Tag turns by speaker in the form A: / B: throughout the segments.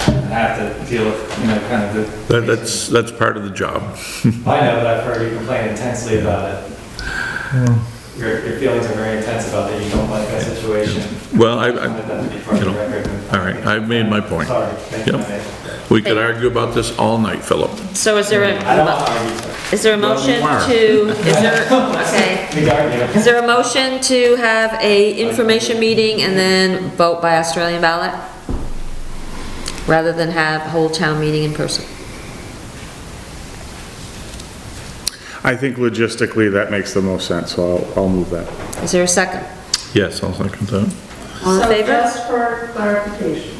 A: have to deal with, you know, kind of the.
B: That- That's, that's part of the job.
A: I know, but I've heard you complain intensely about it. Your, your feelings are very intense about that, you don't like that situation.
B: Well, I,
A: I wanted
B: I,
A: that to be part of the
B: you know,
A: record.
B: all right, I've made my point.
A: Sorry, thank you,
B: Yep.
A: Nick.
B: we could argue about this all night, Philip.
C: So is there
A: I don't want
C: a,
A: to argue, sorry.
C: is there a
B: Well, we
C: motion
B: were.
C: to, is there, okay.
A: We can argue.
C: Is there a motion to have a information meeting and then vote by Australian ballot? Rather than have whole town meeting in person?
D: I think logistically, that makes the most sense, so I'll, I'll move that.
C: Is there a second?
B: Yes, I'll second that.
C: All in
E: So
C: favor?
E: just for clarification,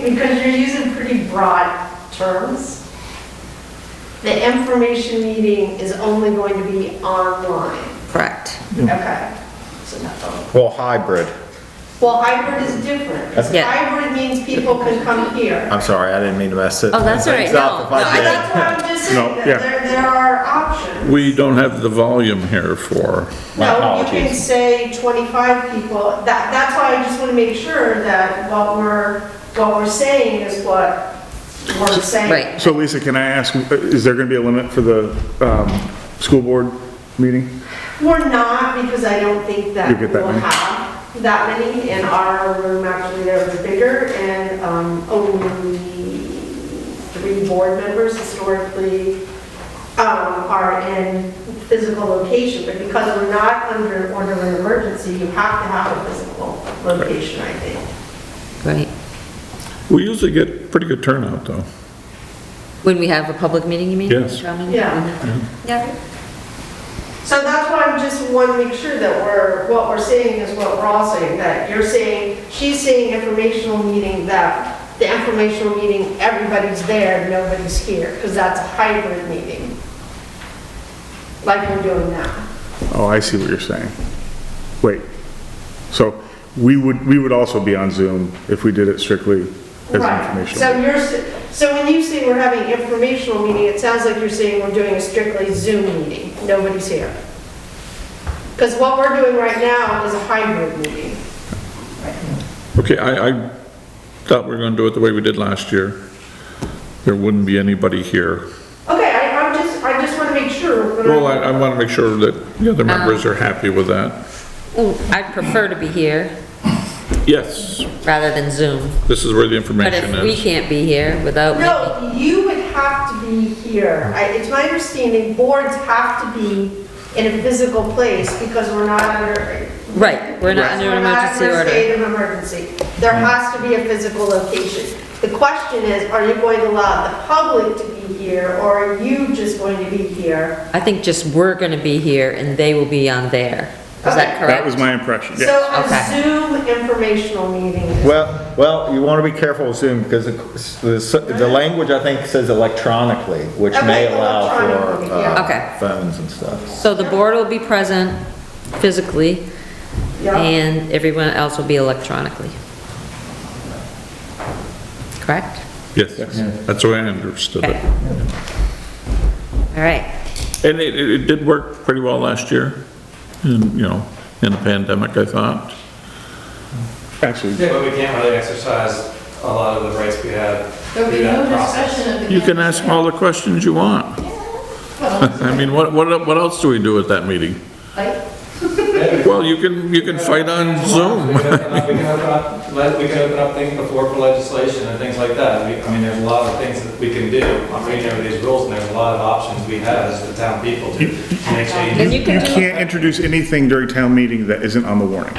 E: because you're using pretty broad terms, the information meeting is only going to be online.
C: Correct.
D: Mm.
E: Okay. So not the-
F: Well, hybrid.
E: Well, hybrid is different. Because
C: Yeah.
E: Hybrid means people can come here.
D: Uh,
F: I'm sorry, I didn't mean to mess it.
C: Oh, that's all right.
F: things up
C: No,
F: if I
C: no, I
F: did.
E: That's what I'm just saying,
D: No,
E: that
D: yeah.
E: there, there are options.
B: We don't have the volume here for,
E: No, you can say 25 people. That, that's why I just want to make sure that what we're, what we're saying is what we're saying.
C: Right.
D: So Lisa, can I ask, is there gonna be a limit for the, um, school board meeting?
E: We're not, because I don't think that
D: You get that
E: we'll
D: many?
E: have that many, and our room actually there was bigger, and um, only three board members historically um, are in physical location, but because we're not under order of emergency, you have to have a physical location, I think.
C: Right.
B: we usually get pretty good turnout, though.
C: When we have a public meeting, you mean?
B: Yes.
C: Town meeting?
E: Yeah.
C: Yeah.
E: So that's why I just want to make sure that we're, what we're saying is what we're all saying, that you're saying, she's saying informational meeting, that the informational meeting, everybody's there, nobody's here, because that's a hybrid meeting. Like we're doing now.
D: Oh, I see what you're saying. Wait, so we would, we would also be on Zoom if we did it strictly as
E: Right.
D: informational.
E: So you're, s- so when you say we're having informational meeting, it sounds like you're saying we're doing a strictly Zoom meeting, nobody's here. Because what we're doing right now is a hybrid meeting.
B: Okay, I, I thought we were gonna do it the way we did last year. There wouldn't be anybody here.
E: Okay, I, I'm just, I just want to make sure. when I'm-
B: Well, I, I wanna make sure that the other members are happy with
C: Um,
B: that.
C: Ooh, I'd prefer to be here
B: Yes,
C: rather than Zoom.
B: this is where the
C: But
B: information
C: if we
B: is.
C: can't be here without making,
E: No, you would have to be here. I- It's my understanding, boards have to be in a physical place because we're not under.
C: Right, we're not
E: because
C: under
E: we're not
C: emergency
E: in a
C: order. Mm-hmm.
E: state of emergency. There has to be a physical location. The question is, are you going to allow the public to be here or are you just going to be here?
C: I think just we're gonna be here and they will be on there. Is that
E: Okay.
C: correct?
D: That was my impression,
E: So
D: yeah.
E: a
C: Okay.
E: Zoom informational meeting is
F: Well, well, you want to be careful with Zoom because the, the language I think says electronically, which may
E: Okay,
F: allow for
E: electronically, yeah.
F: uh,
C: Okay.
F: phones and stuff.
C: So the board will be present physically,
E: Yeah.
C: and everyone else will be electronically. Correct?
B: Yes, that's the way I understood
C: Okay.
B: it.
C: All right,
B: And it, it it did work pretty well last year, in, you know, in the pandemic, I thought.
D: Actually,
A: Yeah, but we can't really exercise a lot of the rights we have.
G: There'll be
A: through that
G: no
A: process.
G: discussion of the.
B: You can ask all the questions you want. I mean, what, what, what else do we do at that meeting?
G: Like,
B: Well, you can, you can fight on
A: We
B: Zoom.
A: can open up- we can open up- let- We can open up things before for legislation and things like that. We- I mean, there's a lot of things that we can do. I'm reading over these rules, and there's a lot of options we have as the town people to to make
C: and
A: changes.
C: you
D: you
C: can do,
D: can't introduce anything during town meeting that isn't on the warning.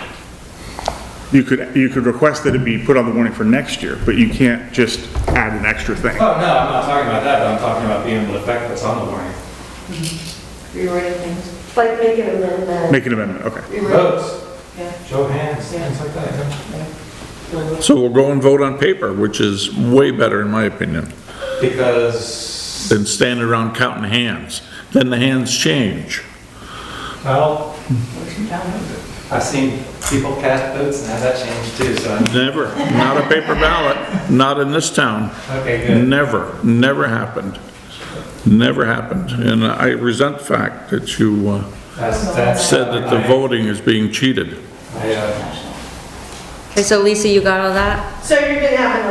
D: You could, you could request that it be put on the warning for next year, but you can't just add an extra thing.
A: Oh, no, I'm not talking about that, but I'm talking about being able to affect what's on the warning.
G: rewording things,
E: like making a minute.
D: Make an amendment, okay.
G: rewording,
A: Votes,
G: yeah.
A: show of hands, things like that.
B: So we'll go and vote on paper, which is way better in my opinion,
A: Because,
B: than standing around counting hands. Then the hands change.
A: well,
G: motion down.
A: I've seen people cast votes and have that changed too, so,
B: Never, not a paper ballot, not in this town.
A: okay, good.
B: Never, never happened. Never happened. And I resent the fact that you uh,
A: That's- that's-
B: said that the voting is being cheated.
A: I, uh,
C: okay, so Lisa, you got all that?
E: So you're going to have an